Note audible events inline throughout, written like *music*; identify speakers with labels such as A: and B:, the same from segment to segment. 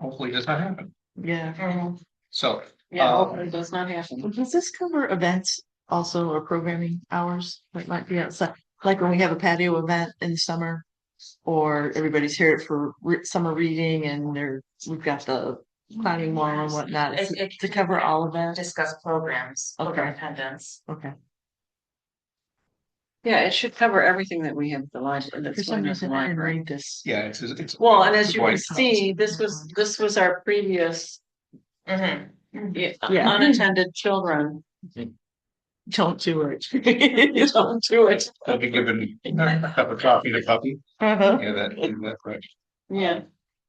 A: Hopefully does not happen.
B: Yeah.
A: So
C: Yeah,
A: Uh,
C: hopefully it does not happen.
B: Does this cover events also or programming hours that might be outside? Like when we have a patio event in the summer? Or everybody's here for re- summer reading and there, we've got the climbing wall and whatnot
C: It-
B: Is it
C: it-
B: to cover all of that.
C: Discuss programs,
B: program
C: attendance.
B: Okay.
C: Yeah, it should cover everything that we have at the library.
B: For some reason, I didn't read this.
A: yeah, it's it's
C: Well, and as you can
A: Right.
C: see, this was, this was our previous. Yeah, uh,
B: Yeah.
C: unattended children.
B: Don't do it. *laughs*
C: Don't do it.
A: they'll
C: *laughs*
A: be given a cup of coffee to puppy.
B: Uh-huh.
A: Yeah, that in that correct.
C: Yeah,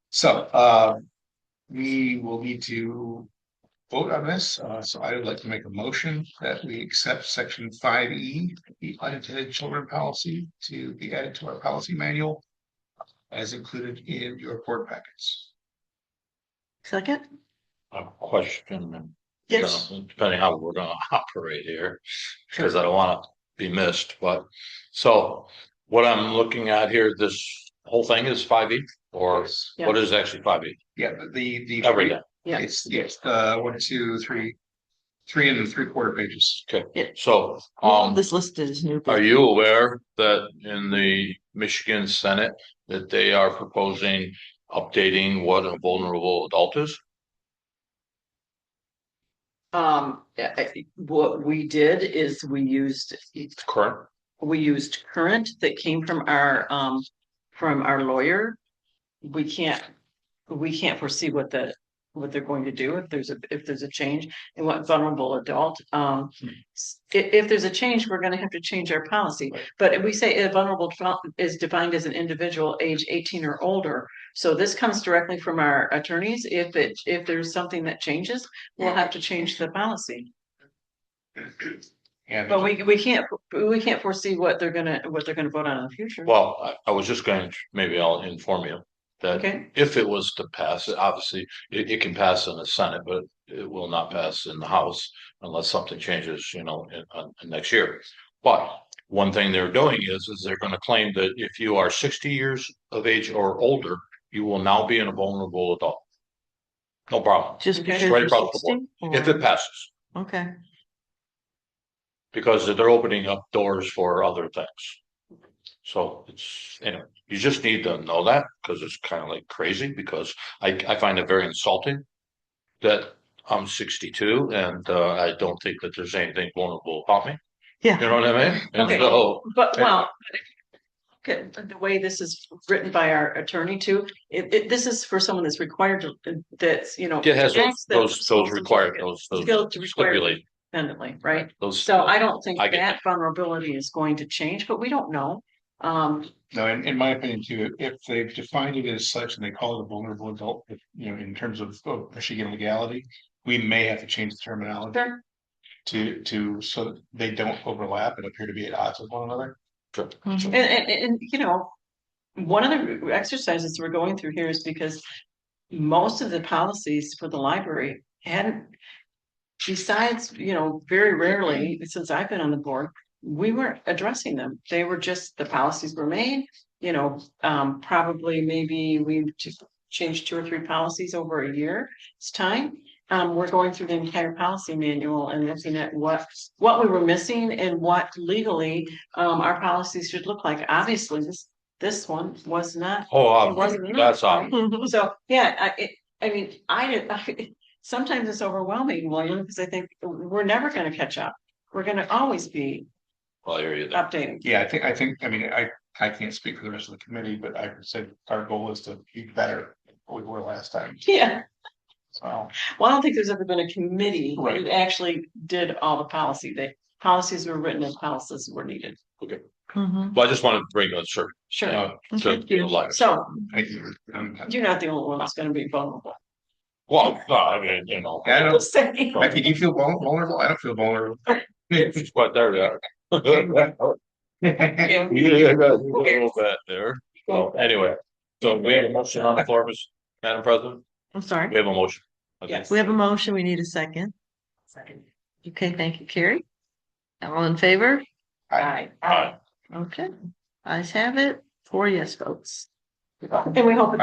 A: So uh, we will need to vote on this. Uh, so I would like to make a motion that we accept section five E, the unintended children policy to be added to our policy manual as included in your board packets.
B: Second?
D: a question. and, you
A: Yes,
D: know, Depending how we're gonna *laughs* operate here, because I don't wanna be missed, but so what I'm looking at here, this whole thing is five E or
A: Yes.
D: what is actually five E?
A: yeah, but the the.
D: Everything.
C: Yeah.
A: It's it's uh one, two, three, three and three quarter pages.
D: So
B: All
D: um,
B: of This list is new.
D: are you aware that in the Michigan Senate that they are proposing updating what a vulnerable adult is?
C: um, I- I- what we did is we used
D: Current,
C: we used current that came from our, um, from our lawyer. We can't, we can't foresee what the, what they're going to do if there's a, if there's a change and what vulnerable adult, um. If, if there's a change, we're gonna have to change our policy, but if we say a vulnerable adult is defined as an individual age eighteen or older. So this comes directly from our attorneys. If it, if there's something that changes, we'll have to change the policy.
A: And
C: But we, we can't, we can't foresee what they're gonna, what they're gonna vote on in the future.
D: well, I I was just going, to maybe I'll inform you that
C: Okay,
D: if it was to pass, it obviously, it, it can pass in the Senate, but it will not pass in the House unless something changes, you know, in, on- in next year. But one thing they're doing is, is they're gonna claim that if you are sixty years of age or older, you will now be in a vulnerable adult. No problem,
B: Just
C: Okay.
B: because
D: Right
B: you're
D: across the board.
B: sixteen?
D: if it passes,
B: Okay,
D: because they're opening up doors for other things. So it's, anyway, you just need to know that, because it's kind of like crazy, because I, I find it very insulting. That I'm sixty-two and, uh, I don't think that there's anything vulnerable about me, you
B: yeah.
D: know what I mean? And
C: Okay.
D: so,
C: but well. Okay, but the way this is written by our attorney too, it, it, this is for someone that's required to, that's, you know.
D: it has
C: acts that-
D: those, those, those required, those, those
C: Skill to require
D: stipulate,
C: independently, right?
D: those.
C: So I don't think
D: I get
C: that vulnerability is going to change, but we don't know. Um,
A: No, in, in my opinion too, if they've defined it as such and they call it a vulnerable adult, if, you know, in terms of of Michigan legality. We may have to change the terminology
C: there-
A: to, to, so that they don't overlap and appear to be at odds with one another.
B: Mhm.
C: And, and, and, you know, one of the exercises we're going through here is because most of the policies for the library hadn't, besides, you know, very rarely, since I've been on the board, we weren't addressing them. They were just, the policies were made, you know, um, probably maybe we just changed two or three policies over a year. It's time. Um, we're going through the entire policy manual and looking at what, what we were missing and what legally um, our policies should look like. Obviously, this, this one was not.
D: Oh,
C: it wasn't
D: um,
C: enough,
D: that's, um,
B: Mhm.
C: So, yeah, I, it, I mean, I did, *laughs* I, sometimes it's overwhelming, William, because I think we're never gonna catch up. We're gonna always be
D: well, I hear you there.
C: updating.
A: Yeah, I think, I think, I mean, I, I can't speak for the rest of the committee, but I said our goal is to be better than we were last time.
C: Yeah,
A: So,
C: well, I don't think there's ever been a committee
A: Right.
C: that actually did all the policy. The policies were written and policies were needed.
B: Mhm.
D: Well, I just wanted to bring that cert,
C: Sure.
A: uh, Um,
D: to
B: Thank you.
D: to light.
C: So
A: I, I'm-
C: you're not the only one that's gonna be vulnerable.
D: Well, no, I mean, you know,
C: *laughs*
A: I don't,
C: Just saying.
A: Becky, do you feel vul- vulnerable? I don't feel vulnerable. *laughs*
D: but there we are. *laughs* Yeah, yeah, yeah, a little bit there. So anyway, so we have a motion on the floor, Ms. Madam President.
B: I'm sorry.
D: We have a motion. I think.
C: Yes.
B: We have a motion. We need a second.
C: Second.
B: Okay, thank you, Carrie. All in favor?
C: Aye.
D: Aye.
B: Okay, eyes have it. Four yes votes.
C: And we hope. it